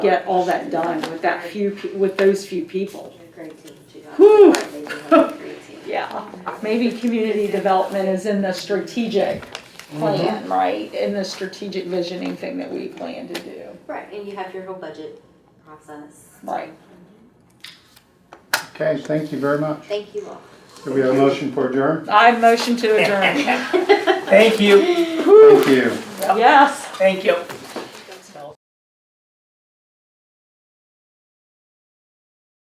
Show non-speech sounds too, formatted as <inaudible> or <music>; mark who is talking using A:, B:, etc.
A: get all that done with that few, pe- with those few people.
B: Great team, she got.
A: Whew.
B: They have a great team.
A: Yeah, maybe community development is in the strategic plan, right? In the strategic visioning thing that we plan to do.
B: Right, and you have your whole budget process.
A: Right.
C: Okay, thank you very much.
B: Thank you all.
C: Do we have a motion for adjourn?
A: I <laughs> motion to adjourn.
D: Thank you,
C: Thank you.
A: Yes.
D: thank you.